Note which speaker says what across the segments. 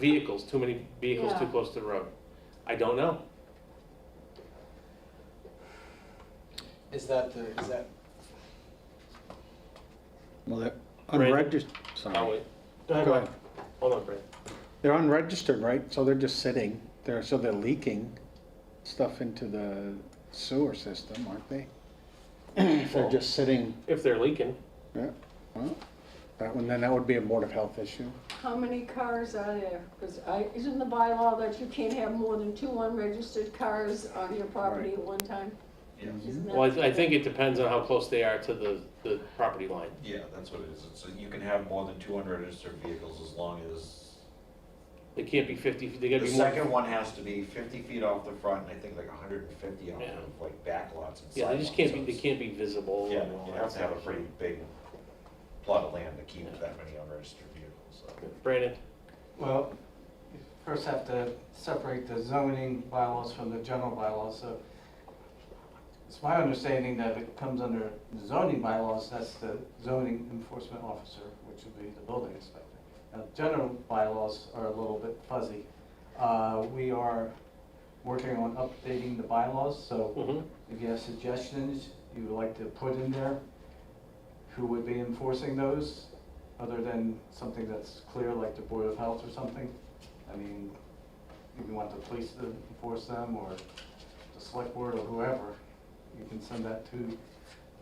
Speaker 1: vehicles, too many vehicles too
Speaker 2: Yeah.
Speaker 1: close to the road. I don't know.
Speaker 3: Is that the, is that,
Speaker 4: Well, they're
Speaker 1: Brandon?
Speaker 4: unregistered,
Speaker 1: I'll
Speaker 4: sorry.
Speaker 1: Oh, wait. Go ahead,
Speaker 4: Go
Speaker 1: Mark.
Speaker 4: ahead.
Speaker 1: Hold on, Brandon.
Speaker 4: They're unregistered, right? So they're just sitting there, so they're leaking stuff into the sewer system, aren't they? If they're just sitting,
Speaker 1: If they're leaking,
Speaker 4: yeah, well, that one, then that would be a Board of Health issue.
Speaker 2: How many cars are there? Because I, isn't the bylaw that you can't have more than two unregistered cars on your property at one time? Isn't that-
Speaker 1: well, I, I think it depends on how close they are to the, the property line.
Speaker 5: Yeah, that's what it is. So you can have more than two hundred registered vehicles as long as,
Speaker 1: They can't be fifty, they gotta
Speaker 5: the
Speaker 1: be more.
Speaker 5: second one has to be fifty feet off the front and I think like hundred and fifty off
Speaker 1: Yeah.
Speaker 5: of like back lots and
Speaker 1: Yeah,
Speaker 5: sidewalks.
Speaker 1: they just can't
Speaker 5: So
Speaker 1: be, they
Speaker 5: it's-
Speaker 1: can't be visible
Speaker 5: Yeah,
Speaker 1: and all
Speaker 5: you
Speaker 1: that
Speaker 5: have to have a
Speaker 1: stuff.
Speaker 5: pretty big plot of land to keep
Speaker 1: Yeah.
Speaker 5: that many unregistered vehicles, so.
Speaker 1: Brandon,
Speaker 3: well, you first have to separate the zoning bylaws from the general bylaws, so it's my understanding that it comes under the zoning bylaws, that's the zoning enforcement officer, which would be the building inspector. Now, general bylaws are a little bit fuzzy. Uh, we are working on updating the bylaws, so
Speaker 1: Mhm.
Speaker 3: If you have suggestions you would like to put in there, who would be enforcing those, other than something that's clear, like the Board of Health or something? I mean, if you want the police to enforce them, or the select board, or whoever, you can send that to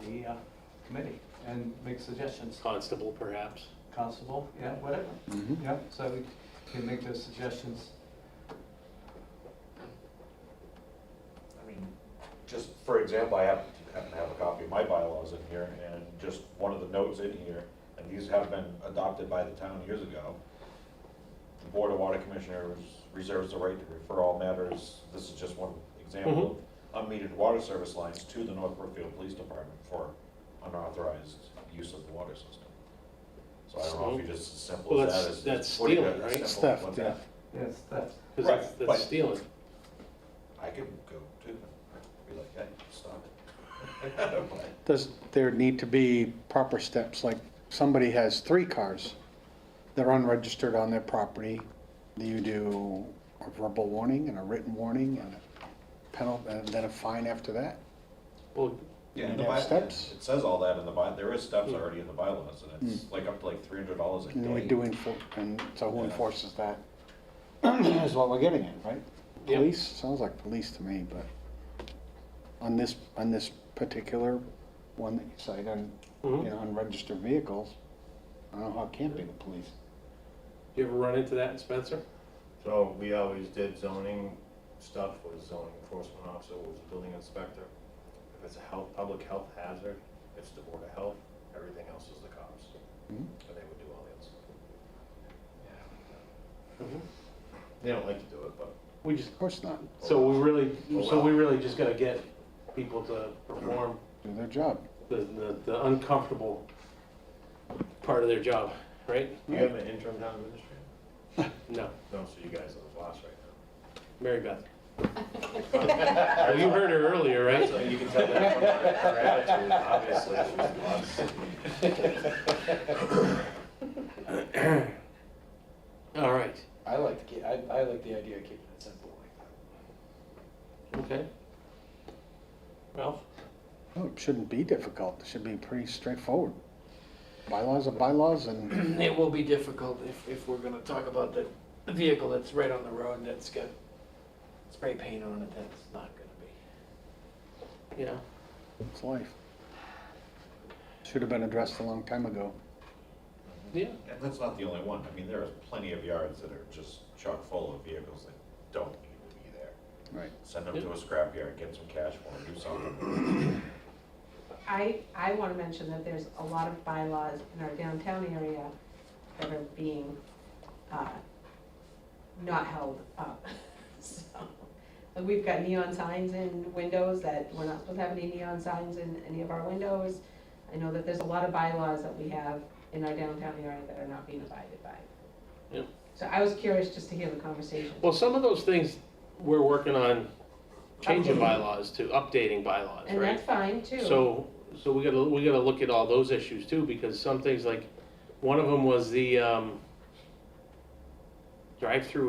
Speaker 3: the uh, committee and make suggestions.
Speaker 1: constable perhaps.
Speaker 3: Constable, yeah, whatever,
Speaker 4: Mhm.
Speaker 3: yeah, so we can make those suggestions.
Speaker 5: I mean, just for example, I happen, happen to have a copy of my bylaws in here, and just one of the notes in here, and these have been adopted by the town years ago. The Board of Water Commissioners reserves the right to refer all matters, this is just one example,
Speaker 1: Mm-hmm.
Speaker 5: of unmetered water service lines to the North Brookfield Police Department for unauthorized use of the water system. So I don't know if you just as simple
Speaker 1: Well,
Speaker 5: as that
Speaker 1: that's-
Speaker 5: as.
Speaker 1: that's
Speaker 5: what do you-
Speaker 1: stealing,
Speaker 5: that's
Speaker 1: right?
Speaker 5: simple,
Speaker 4: Theft,
Speaker 5: what
Speaker 4: yeah.
Speaker 5: that-
Speaker 3: Yes, that's,
Speaker 1: Cause
Speaker 5: Right,
Speaker 1: that's,
Speaker 5: but-
Speaker 1: that's stealing.
Speaker 5: I could go too, be like, hey, stop it. But-
Speaker 4: Does there need to be proper steps, like somebody has three cars that are unregistered on their property? Do you do a verbal warning and a written warning and a penalty, and then a fine after that?
Speaker 1: Well,
Speaker 5: Yeah,
Speaker 4: And
Speaker 5: in the
Speaker 4: they have
Speaker 5: by, it
Speaker 4: steps? Hmm.
Speaker 5: says all that in the by, there is steps
Speaker 6: Hmm.
Speaker 1: Mm.
Speaker 5: already in the bylaws, and it's like up to like three hundred dollars a
Speaker 4: And we
Speaker 5: day.
Speaker 4: do enforce, and so who
Speaker 5: Yeah.
Speaker 4: enforces that? Is what we're getting at, right?
Speaker 1: Yep.
Speaker 4: Police, sounds like police to me, but on this, on this particular one that you cite, on,
Speaker 1: mhm.
Speaker 4: you know, unregistered vehicles, I don't know how it can't be the police.
Speaker 1: you ever run into that, Spencer?
Speaker 6: So we always did zoning stuff with zoning enforcement officer, was building inspector. If it's a health, public health hazard, it's the board of health, everything else is the cops.
Speaker 4: Mhm.
Speaker 6: And they would do all the other stuff.
Speaker 4: Mm-hmm.
Speaker 6: They don't like to do it, but
Speaker 1: We just,
Speaker 4: Of course not,
Speaker 1: so we really,
Speaker 6: Oh,
Speaker 1: so
Speaker 6: wow.
Speaker 1: we really just gotta get people to perform
Speaker 4: do their job.
Speaker 1: the, the, the uncomfortable part of their job, right?
Speaker 6: you have an interim town administrator?
Speaker 1: No,
Speaker 6: No, so you guys are the boss right
Speaker 1: Mary Beth. Well, You heard her earlier,
Speaker 6: now.
Speaker 1: right?
Speaker 6: So you can tell that from her her attitude, obviously, she's the boss.
Speaker 1: All right,
Speaker 7: I like to keep, I, I like the idea of keeping it simple like that.
Speaker 1: okay. Ralph?
Speaker 4: Oh, it shouldn't be difficult, it should be pretty straightforward. Bylaws are bylaws and,
Speaker 7: It will be difficult if, if we're gonna talk about the the vehicle that's right on the road and that's got spray paint on it, that's not gonna be.
Speaker 1: Yeah.
Speaker 4: it's life. Should have been addressed a long time ago.
Speaker 1: Yeah.
Speaker 5: And that's not the only one, I mean, there are plenty of yards that are just chock full of vehicles that don't need to be there.
Speaker 4: Right.
Speaker 5: Send them to a scrapyard, get some cash for them, do something.
Speaker 8: I, I want to mention that there's a lot of bylaws in our downtown area that are being, uh, not held up. So, and we've got neon signs in windows that we're not supposed to have any neon signs in any of our windows. I know that there's a lot of bylaws that we have in our downtown area that are not being abided by.
Speaker 1: Yep.
Speaker 8: So I was curious just to hear the conversation.
Speaker 1: Well, some of those things, we're working on changing
Speaker 8: Updating.
Speaker 1: bylaws to updating bylaws,
Speaker 8: And
Speaker 1: right?
Speaker 8: that's fine too.
Speaker 1: So, so we gotta, we gotta look at all those issues too, because some things like, one of them was the, um, drive-through